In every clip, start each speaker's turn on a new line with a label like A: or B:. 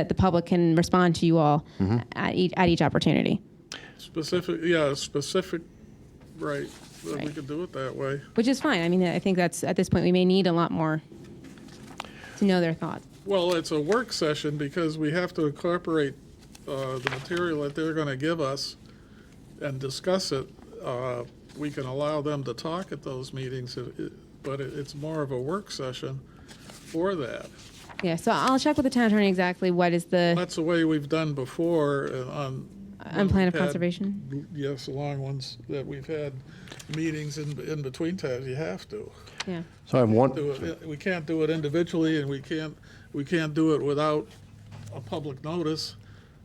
A: that uh, the public can respond to you all
B: Mm-hmm.
A: at each, at each opportunity,
C: Specific, yeah, specific, right, that we
A: Right.
C: could do it that way.
A: which is fine. I mean, I think that's, at this point, we may need a lot more to know their thoughts.
C: Well, it's a work session because we have to incorporate uh, the material that they're going to give us and discuss it. Uh, We can allow them to talk at those meetings, it- it- but it- it's more of a work session for that.
A: Yeah, so I'll check with the town attorney exactly what is the
C: That's the way we've done before uh, on,
A: unplanned of
C: had-
A: conservation.
C: yes, the long ones that we've had, meetings in, in between times, you have to.
A: Yeah,
B: So I have one,
C: do it, we can't do it individually, and we can't, we can't do it without a public notice.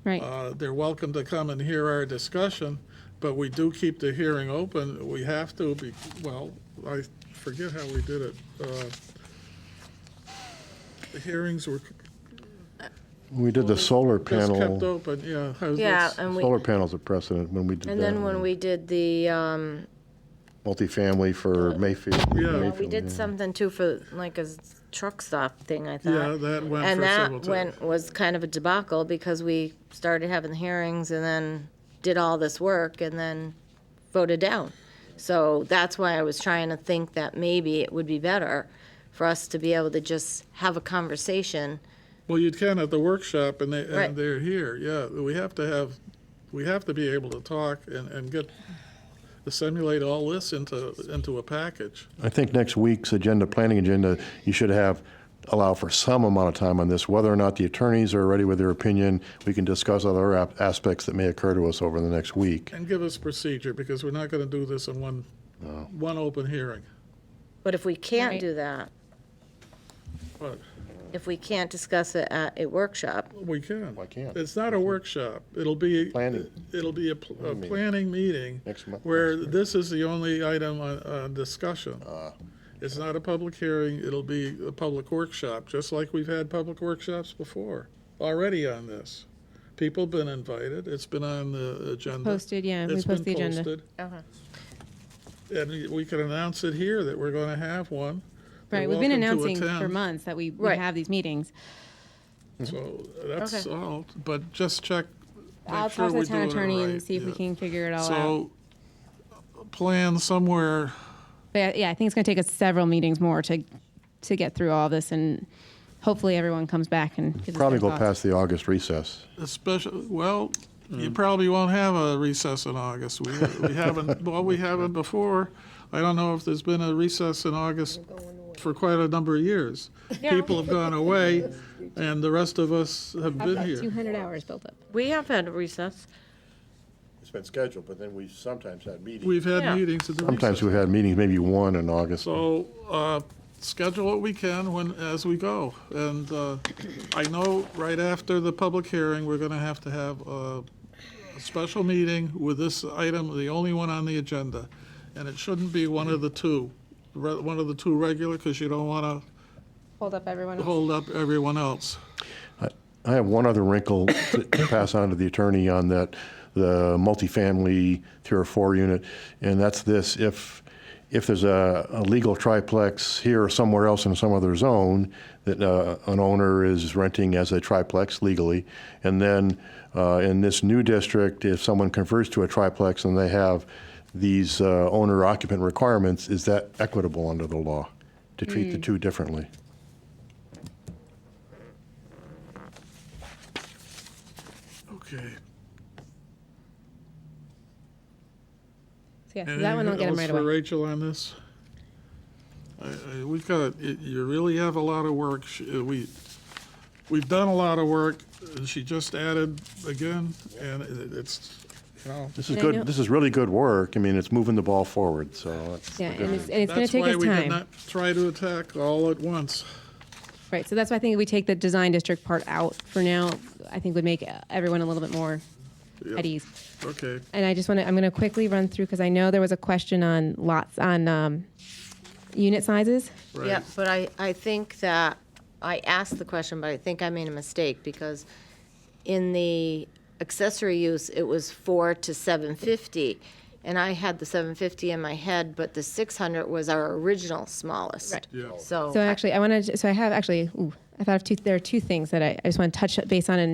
A: right.
C: Uh, They're welcome to come and hear our discussion, but we do keep the hearing open. We have to be, well, I forget how we did it. Uh, The hearings were
B: we did the solar
C: just kept
B: panel,
C: open, yeah. how's
D: Yeah, um,
C: this?
D: and we,
B: solar panels a precedent when we did that.
D: and then when
B: on
D: we did the, um,
B: Multifamily for Mayfield.
C: Yeah. Well, we
D: we
B: Mayfield,
D: did
B: yeah.
D: something too for like a s- truck stop thing, I
C: Yeah,
D: thought.
C: that went
D: And
C: for several
D: that
C: times.
D: went, was kind of a debacle because we started having the hearings and then did all this work and then voted down. So that's why I was trying to think that maybe it would be better for us to be able to just have a conversation.
C: Well, you can at the workshop, and they, and
D: Right.
C: they're here, yeah. We have to have, we have to be able to talk and, and get, assimilate all this into, into a package.
B: I think next week's agenda, planning agenda, you should have, allow for some amount of time on this, whether or not the attorneys are ready with their opinion. We can discuss other ap- aspects that may occur to us over the next week.
C: And give us procedure, because we're not gonna do this in one, one open hearing.
D: But if we can't
A: Right.
D: do that,
C: But
D: if we can't discuss it at a workshop,
C: we can.
B: Why can't?
C: It's not a workshop. It'll be.
B: Planning.
C: It'll be a, pl- a planning meeting.
B: Next month, Ah.
C: Where
B: next
C: this is the only item on, on discussion. It's not a public hearing. It'll be a public workshop, just like we've had public workshops before, already on this. People have been invited. It's been on the agenda.
A: Posted, yeah, we
C: It's been
A: post the agenda.
C: posted. And we can announce it here that we're gonna have one. They're
A: Right, we've been
C: welcome to
A: announcing for
C: attend.
A: months that we, we
D: Right.
A: have these meetings.
C: So that's
D: Okay.
C: all, but just check,
A: I'll
C: make sure
A: talk to
C: we're
A: the town
C: doing it
A: attorney and
C: right.
A: see if we
C: yeah.
A: can figure it all out.
C: So, plan somewhere,
A: But yeah, yeah, I think it's gonna take us several meetings more to, to get through all this and hopefully everyone comes back and gives us
B: Probably
A: their
B: go
A: thoughts.
B: past the August recess.
C: especially, well, you probably won't have a recess in August. We, we haven't, well, we haven't before. I don't know if there's been a recess in August for quite a number of years. People have gone away, and the rest of us have been
A: Two
C: here.
A: hundred hours built up.
D: we have had a recess.
B: It's been scheduled, but then we sometimes had meetings.
C: We've had
D: Yeah.
C: meetings at the
B: Sometimes
C: recess.
B: we've had meetings, maybe one in August.
C: So, uh, schedule what we can when, as we go. And uh, I know right after the public hearing, we're going to have to have a a special meeting with this item, the only one on the agenda. And it shouldn't be one of the two, re- one of the two regular, because you don't want
A: Hold up, everyone.
C: to hold up everyone else.
B: I have one other wrinkle to to pass on to the attorney on that, the multifamily tier four unit, and that's this, if, if there's a, a legal triplex here or somewhere else in some other zone that uh, an owner is renting as a triplex legally, and then uh, in this new district, if someone converts to a triplex and they have these uh, owner occupant requirements, is that equitable under the law to treat the two differently?
C: Okay.
A: Yeah, so that one I'll get him
C: Anything
A: right
C: else for
A: away.
C: Rachel on this? I- I- We've got, y- you really have a lot of work. Sh- uh, We, we've done a lot of work. and She just added again, and it- it's, you know,
B: This is
A: And I know-
B: good, this is really good work. I mean, it's moving the ball forward, so it's
A: Yeah, and it's, and it's gonna
C: that's
A: take
C: why
A: us
C: we did
A: time.
C: not try to attack all at once.
A: Right, so that's why I think we take the design district part out for now. I think would make everyone a little bit more
C: Yeah,
A: at ease.
C: Okay,
A: And I just want to, I'm going to quickly run through because I know there was a question on lots on um, unit sizes.
C: right.
D: Yeah, but I, I think that, I asked the question, but I think I made a mistake, because in the accessory use, it was four to seven fifty, and I had the seven fifty in my head, but the six hundred was our original smallest.
A: Right.
C: Yeah.
D: So,
A: So actually, I want to, so I have actually, ooh, I thought of two, there are two things that I, I just want to touch base on and